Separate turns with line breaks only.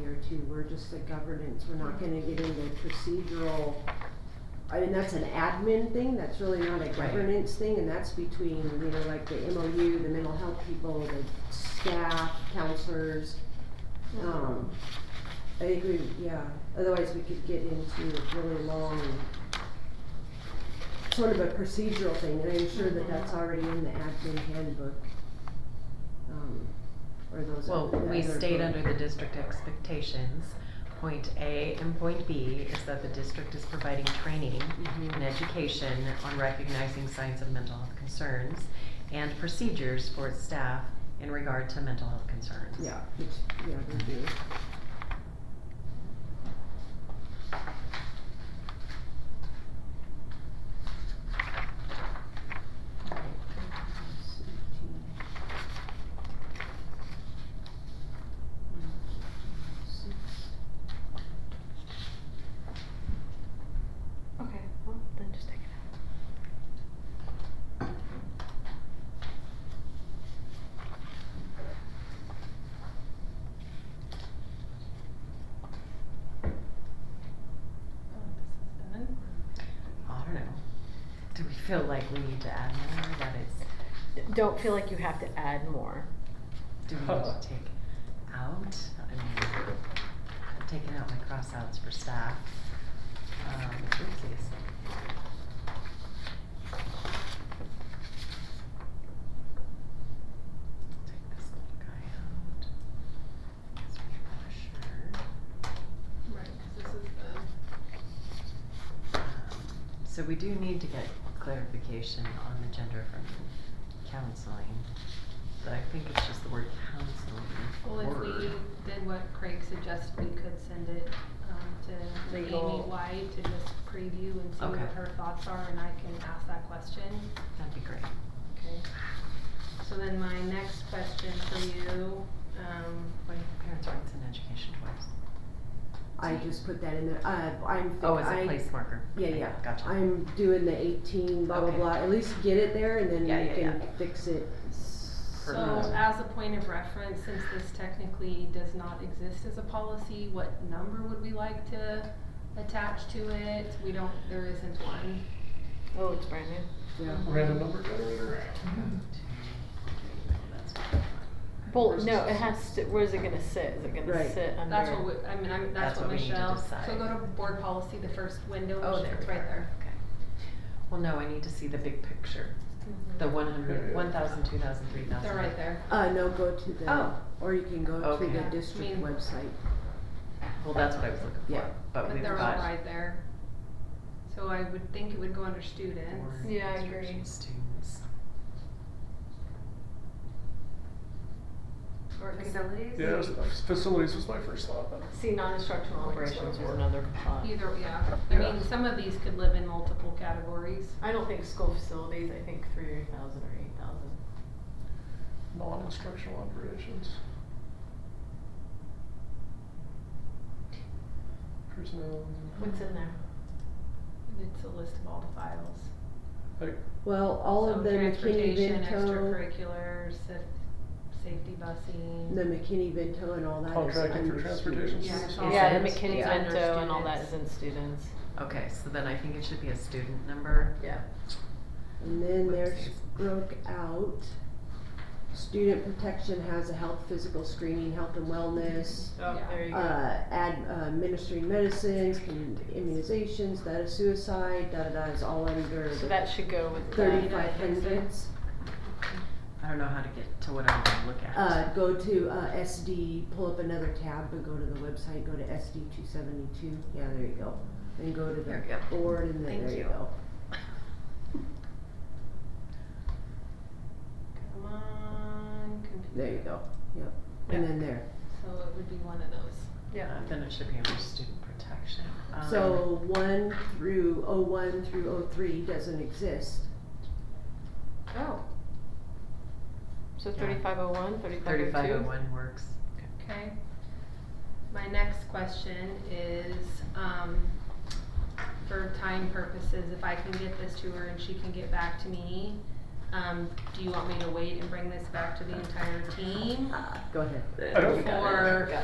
here too, we're just a governance, we're not gonna get into procedural. I mean, that's an admin thing, that's really not a governance thing, and that's between, you know, like the MOU, the mental health people, the staff, counselors. Um, I agree, yeah, otherwise we could get into a really long, sort of a procedural thing, and I'm sure that that's
Mm-hmm.
already in the admin handbook. Um, or those.
Well,
other-
we
other
state
book.
under the district expectations, point A and point B is that the district is providing training
Mhm.
and education on recognizing signs of mental health concerns and procedures for its staff in regard to mental health concerns.
Yeah, it's, yeah, they do.
Okay, well, then just take it out.
I don't know. Do we feel like we need to add more that it's,
D- Don't feel like you have to add more.
do we need to take out? I mean, I've taken out my crossouts for staff. Um, oopsies. Take this little guy out. That's for
Right, 'cause this is uh,
sure. Um, So we do need to get clarification on the gender from counseling, but I think it's just the word counseling.
the, well, if we
word.
did what Craig suggested, we could send it, um, to Amy
Legal.
White to just preview and see what
Okay.
her thoughts are, and I can ask that question.
That'd be great.
Okay. So then my next question for you, um,
What do parents' rights and education towards?
I just put that in there, uh, I'm,
Oh, as
I-
a place marker.
Yeah,
Okay,
yeah.
Gotcha.
I'm doing the eighteen, blah, blah,
Okay.
blah, at least get it there and then
Yeah,
you
yeah,
can
yeah.
fix it.
So
Perfect.
as a point of reference, since this technically does not exist as a policy, what number would we like to attach to it? We don't, there isn't one.
Oh, it's brand new.
Yeah.
Random number generator.
That's what I want.
Well, no, it has to, where's it gonna sit? Is it
Right.
gonna sit under?
That's what we, I mean, I'm,
That's
that's what
what we need to
Michelle,
decide.
so go to board policy, the first window,
Oh,
Mich-
there
it's
we
right
are,
there.
okay. Well, no, I need to see the big picture, the one hundred,
Yeah.
one thousand, two thousand, three thousand.
They're right there.
Uh, no, go to the,
Oh.
or you can go to the
Okay.
district
Mean-
website.
Well, that's what I was looking
Yeah.
for, but
But
we've
they're all
got
right there. So I would think it would go under students.
board
Yeah, I agree.
instruction students.
Facilities?
Yeah, it was nice. Facilities was my first thought. but-
See, non-instructional operations was another thought.
Either, yeah, I
Yeah.
mean, some of these could live in multiple categories.
I don't think school facilities, I think three thousand or eight thousand.
Non-instructional operations. Personnel.
What's in there?
It's a list of all the files.
Like,
Well, all of
So
the McKinney
Transportation,
Vento,
extracurriculars, sa- safety busing.
the McKinney Vento and all that is under.
Contracted Oh, for transportation
students.
Yeah, it's
services.
all-
Yeah, the
Students.
McKinney
Yeah.
Vento and all that is in students.
Okay, so then I think it should be a student number.
Yeah.
And then there's broke out. Student protection has a health, physical screening, health and wellness.
Oh,
Yeah.
there you go.
uh, ad, uh, administering medicines, commu- immunizations, that is suicide, da da da, is all under
So
the
that should go with that.
thirty-five hundreds.
I don't know how to get to what I want to look at.
Uh, go to, uh, SD, pull up another tab, but go to the website, go to SD two seventy-two, yeah, there you go. Then go to
There we go.
the board and then
Thank
there you
you.
go.
Come on, computer.
There you go, yep, and
Yeah.
then there.
So it would be one of those.
Yeah.
Uh, Then it should be under student protection. Um,
So one through, oh one through oh three doesn't exist.
Oh. So
Yeah.
thirty-five oh one, thirty-five
Thirty-five
oh
oh one works.
Okay. My next question is, um, for time purposes, if I can get this to her and she can get back to me, um,
uh,
do you want me to wait and bring this back to the entire team?
Go ahead.
I don't-
Or